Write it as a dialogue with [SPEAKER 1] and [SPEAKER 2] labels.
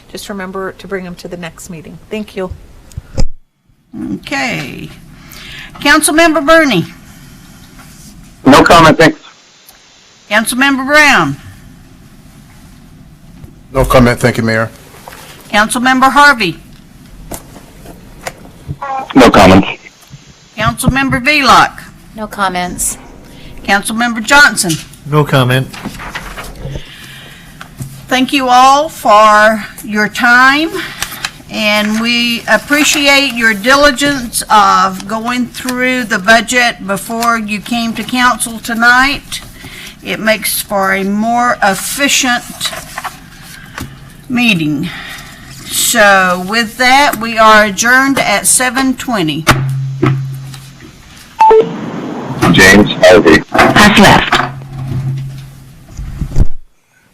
[SPEAKER 1] Just remember to bring them to the next meeting. Thank you.
[SPEAKER 2] Okay. Councilmember Bernie.
[SPEAKER 3] No comment, thanks.
[SPEAKER 2] Councilmember Brown.
[SPEAKER 4] No comment, thank you, Mayor.
[SPEAKER 2] Councilmember Harvey.
[SPEAKER 3] No comments.
[SPEAKER 2] Councilmember Velock.
[SPEAKER 5] No comments.
[SPEAKER 2] Councilmember Johnson.
[SPEAKER 6] No comment.
[SPEAKER 2] Thank you all for your time, and we appreciate your diligence of going through the budget before you came to council tonight. It makes for a more efficient meeting. So with that, we are adjourned at 7:20.
[SPEAKER 3] James Harvey.
[SPEAKER 7] Has left.